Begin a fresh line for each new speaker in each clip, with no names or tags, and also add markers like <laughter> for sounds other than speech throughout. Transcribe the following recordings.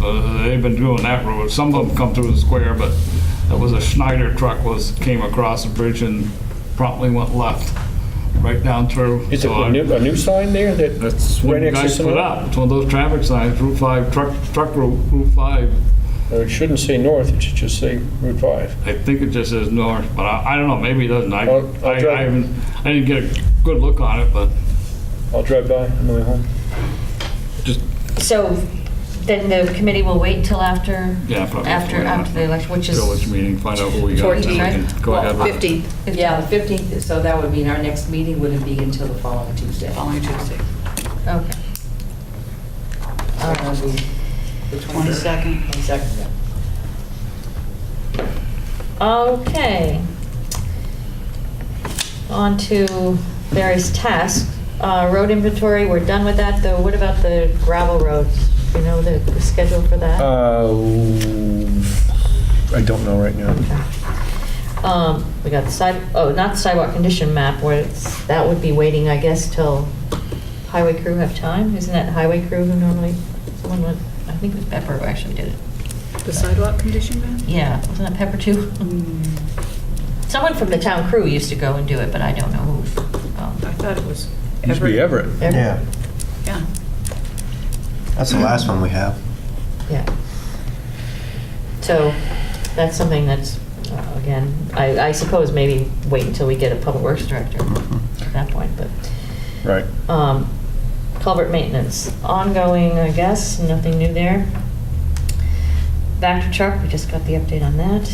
uh, they've been doing that road. Some of them come through the square, but that was a Schneider truck was, came across the bridge and promptly went left, right down through.
Is it
So I-
a new, a new sign there that?
That's what
right
you
next to
guys
some
put
of-
up. It's one of those traffic signs, Route 5, truck, truck route, Route 5.
Or it shouldn't say north, it should just say Route 5.
I think it just says north, but I, I don't know, maybe it doesn't. I,
Well, I'll
I
drive-
I haven't, I didn't get a good look on it, but
I'll drive by on the way home.
just
So then the committee will wait till after?
Yeah, probably.
After, after the election, which is,
Village meeting, find out who we got. and then we can Go ahead. with it.
15th.
Yeah, the 15th, so that would mean our next meeting wouldn't be until the following Tuesday.
following Tuesday,
okay.
So that would be The
22nd.
22nd, yeah.
Okay. On to various tasks. Uh, Road inventory, we're done with that, though. What about the gravel roads? Do you know the the schedule for that?
Uh, I don't know right now.
Um, we got the side, oh, not the sidewalk condition map, where it's, that would be waiting, I guess, till highway crew have time? Isn't that highway crew who normally, someone went, I think it was Pepper who actually did it.
The sidewalk Mm. condition map?
Yeah, wasn't it Pepper too?
Hmm.
Someone from the town crew used to go and do it, but I don't know who.
I
Um,
thought it was Everett.
Used to be Everett.
Ever-
Yeah,
Yeah.
<clears throat> that's the last one we have.
Yeah. So that's something that's, uh, again, I, I suppose maybe wait until we get a public works director at that point, but.
Right.
Um, Culvert maintenance, ongoing, I guess, nothing new there. Vector truck, we just got the update on that.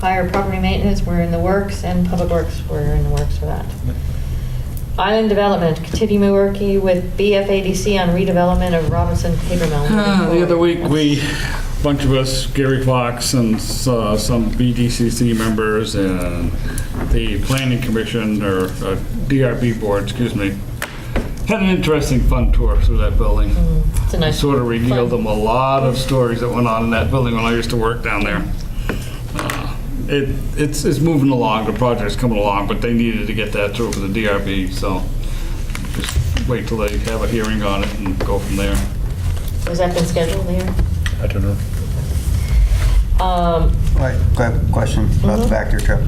Higher property maintenance, we're in the works, and public works, we're in the works for that. Island development, continue working with BFADC on redevelopment of Robinson Paper Mill.
Uh, The other week, we, a bunch of us, Gary Fox and s- uh, some BDCC members and the planning commission or uh, DRB board, excuse me, had an interesting fun tour through that building.
Mm, It's a nice.
Sort of revealed
fun-
them a lot of stories that went on in that building when I used to work down there. Uh, It, it's, it's moving along, the project's coming along, but they needed to get that through for the DRB, so just wait till they have a hearing on it and go from there.
Has that been scheduled there?
I don't know.
Um,
Right, quick question
Mm-hmm.
about the Vector truck.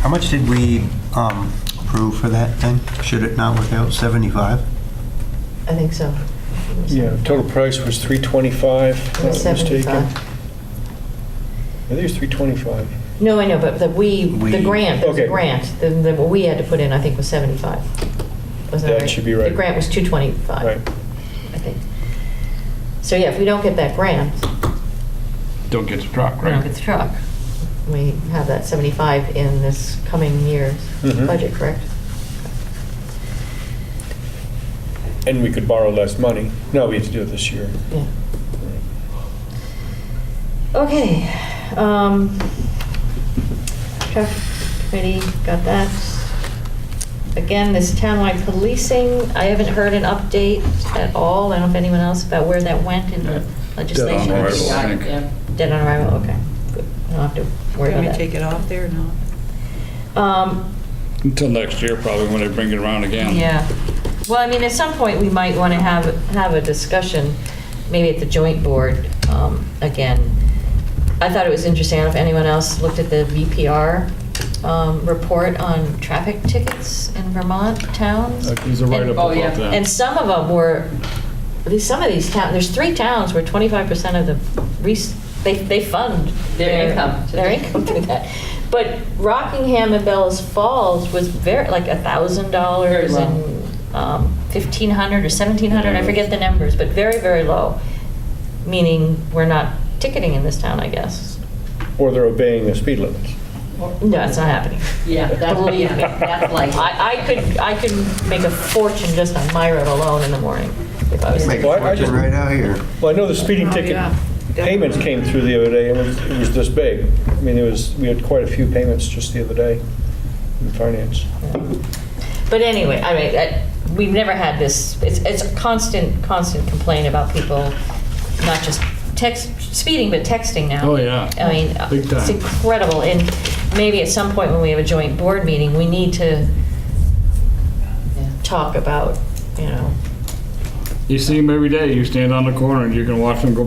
How much did we um, approve for that thing? Should it not work out 75?
I think so.
Yeah, total price was 325, if I'm
It was
not mistaken. I
75.
think it was 325.
No, I know, but the we, the
We-
grant, there's a
Okay.
grant, the, the, what we had to put in, I think, was 75. Wasn't
That should be right.
The grant was 225.
Right.
I think. So, yeah, if we don't get that grant,
Don't get the truck,
we
right?
don't get the truck. We have that 75 in this coming year's
Mhm.
budget, correct?
And we could borrow less money. No, we had to do it this year.
Yeah. Okay, um, traffic committee, got that. Again, this townwide policing, I haven't heard an update at all, I don't know if anyone else, about where that went in the legislation.
Dead on
We
arrival, I
got it,
think.
yeah.
Dead on arrival, okay, good, I don't have to worry
Can we
about
take
that.
it off there or not?
Um,
Until next year, probably, when they bring it around again.
Yeah. Well, I mean, at some point, we might want to have, have a discussion, maybe at the joint board, um, again. I thought it was interesting, I don't know if anyone else looked at the VPR, um, report on traffic tickets in Vermont towns.
Like, There's a write-up
Oh, yeah.
about that.
And some of them were, at least some of these towns, there's three towns where 25% of the, res- they, they fund.
Their income.
Their income through that. But Rockingham and Bellas Falls was very, like
Very
$1,000
low.
and um, 1,500 or 1,700, I forget the numbers, but very, very low. Meaning we're not ticketing in this town, I guess.
Or they're obeying the speed limits.
No, it's not happening.
Yeah, that's,
Believe me.
yeah, that's like.
I, I could, I could make a fortune just on my road alone in the morning if I was
Make
Well, I-
a
I just-
fortune right out here.
Well, I know the speeding ticket
Oh, yeah.
payments came through the other day, and it was- it was this big. I mean, it was, we had quite a few payments just the other day in finance.
But anyway, I mean, I- we've never had this, it's, it's a constant, constant complaint about people not just text, speeding, but texting now.
Oh, yeah.
I mean, uh,
Big
it's
time.
incredible, and maybe at some point when we have a joint board meeting, we need to
Yeah.
talk about, you know,
You see them every day, you stand on the corner and you can watch them go